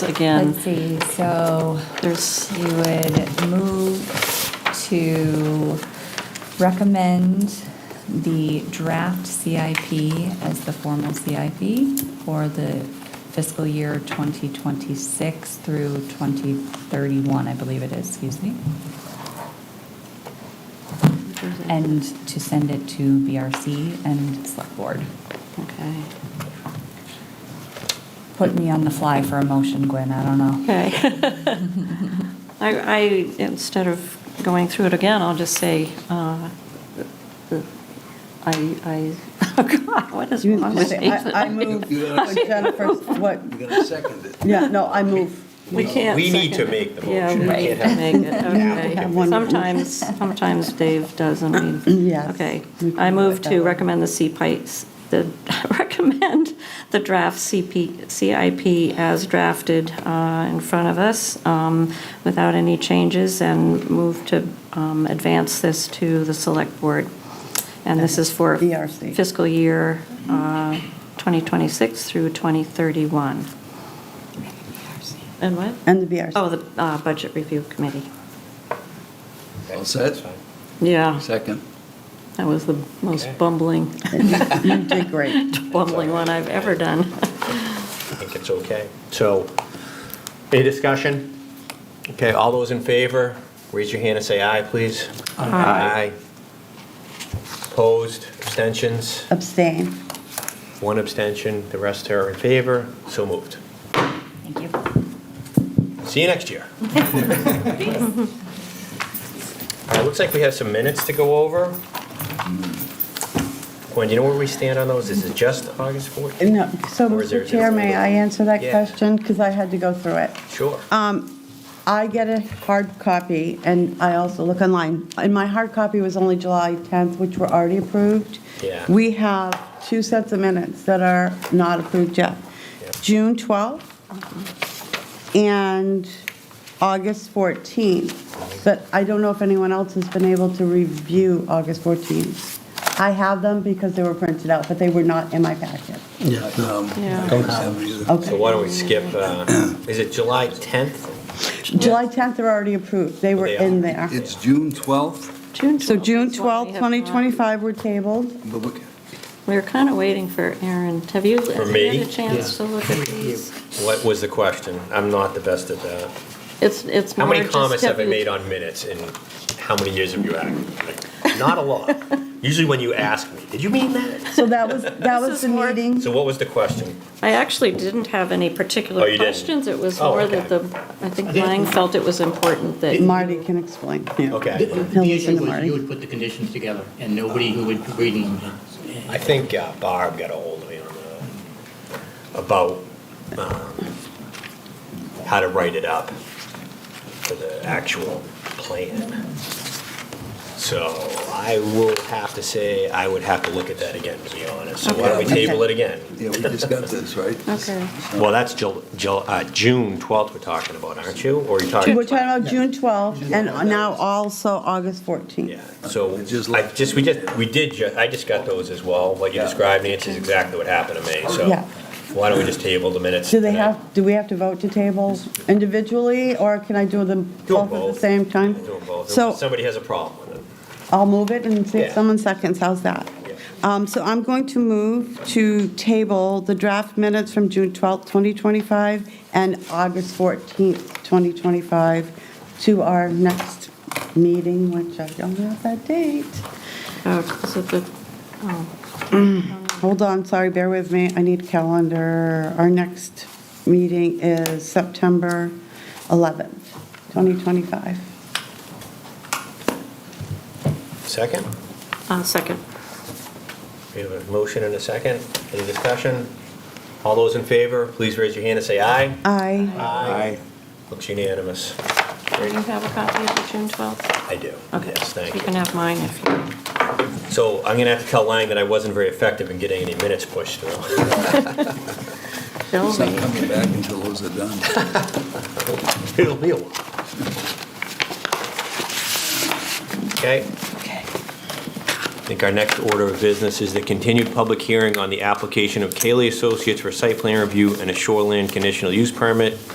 again, Let's see, so there's, we would move to recommend the draft CIP as the formal CIP for the fiscal year 2026 through 2031, I believe it is, excuse me. And to send it to BRC and Select Board. okay. Put me on the fly for a motion, Gwen, I don't know. Okay. I, I, instead of going through it again, I'll just say, uh, I, I, oh God, what is You wrong need to with say, me? I I move, Jennifer, what, You're going to second it. yeah, no, I move. We can't. We second need to it. make the Yeah, motion. we We need can't to have make it, have okay. one- Sometimes, sometimes Dave does, and we. Yes. Okay. We can I move put that to on. recommend the CPI, the, recommend the draft CP, CIP as drafted uh, in front of us um, without any changes and move to um, advance this to the select board. And this is for BRC. fiscal year uh, 2026 through 2031. And what? And the BRC. Oh, the uh, Budget Review Committee. All set? Yeah, Second. that was the most Okay. bumbling, You did great. bumbling one I've ever done. I think it's okay. So, any discussion? Okay, all those in favor, raise your hand and say aye, please. Aye. Opposed, abstentions, Abstain. one abstention, the rest are in favor, so moved. Thank you. See you next year. All right, looks like we have some minutes to go over. Gwen, do you know where we stand on those? Is it just August 14th? No, uh, so, Or is there- Mr. Chair, may I answer that Yeah. question? Because I had to go through it. Sure. I get a hard copy, and I also look online. And my hard copy was only July 10th, which were already approved. Yeah. We have two sets of minutes that are not approved yet. Yeah. June 12th and August 14th. But I don't know if anyone else has been able to review August 14th. I have them because they were printed out, but they were not in my packet. Yeah. um, Yeah. I don't have either. Okay. So why don't we skip, uh, is it July 10th? July 10th are already approved. They were They are. in there. It's June 12th, June 12th. So June is what we 12th, have not- 2025 were tabled. but we- We were kind of waiting for Aaron. Have you have you me? had a chance to look at these? What was the question? I'm not the best at that. It's, it's How more many just comments have I typical- made on minutes in how many years have you had? Like, Not a lot. Usually when you ask me, did you mean that? So that was, that was is the more- meeting. So what was the question? I actually didn't have any Oh, particular you didn't? questions. It was Oh, more that the, okay. I think Lang felt it was important that. Marty can explain. The- Okay. He'll The issue listen to was Marty. you would put the conditions together, and nobody who would read them. had- I think uh, Barb got a hold of me on uh, about um, how to write it up for the actual plan. So I will have to say, I would have to look at that again, to be honest. So why don't we Okay. table it again? yeah, we just got this, right? Okay. Well, that's Jul- Jul- uh, June 12th we're talking about, aren't you? Or are you talking? We're talking about June 12th and now also August 14th. Yeah, so It just I left. just, we just, we did, ju- I just got those as well. What you Yeah. described, Nancy, is exactly what happened to me, so Yeah. why don't we just table the minutes? Do they tonight? have, do we have to vote to table individually or can I do them Do both 'em at the both. same time? Do 'em both. So Somebody has a problem with it. I'll move it and see if Yeah. someone seconds. How's that? Yeah. Um, So I'm going to move to table the draft minutes from June 12th, 2025 and August 14th, 2025 to our next meeting, which I don't have that date. Oh, is it the, oh, Hold on, sorry, bear with me. I need calendar. Our next meeting is September 11th, 2025. Second? uh, second. We have a motion and a second. Any discussion? All those in favor, please raise your hand and say aye. I, Aye. Looks unanimous. Do you have a copy of the June 12th? I do. Okay. Yes, thank You can you. have mine if you. So I'm going to have to tell Lang that I wasn't very effective in getting any minutes pushed through. Bill, It's not coming back until those are done. It'll be a while. Okay. I think our next order of business is the continued public hearing on the application of Kaylee Associates for site plan review and a shoreline conditional use permit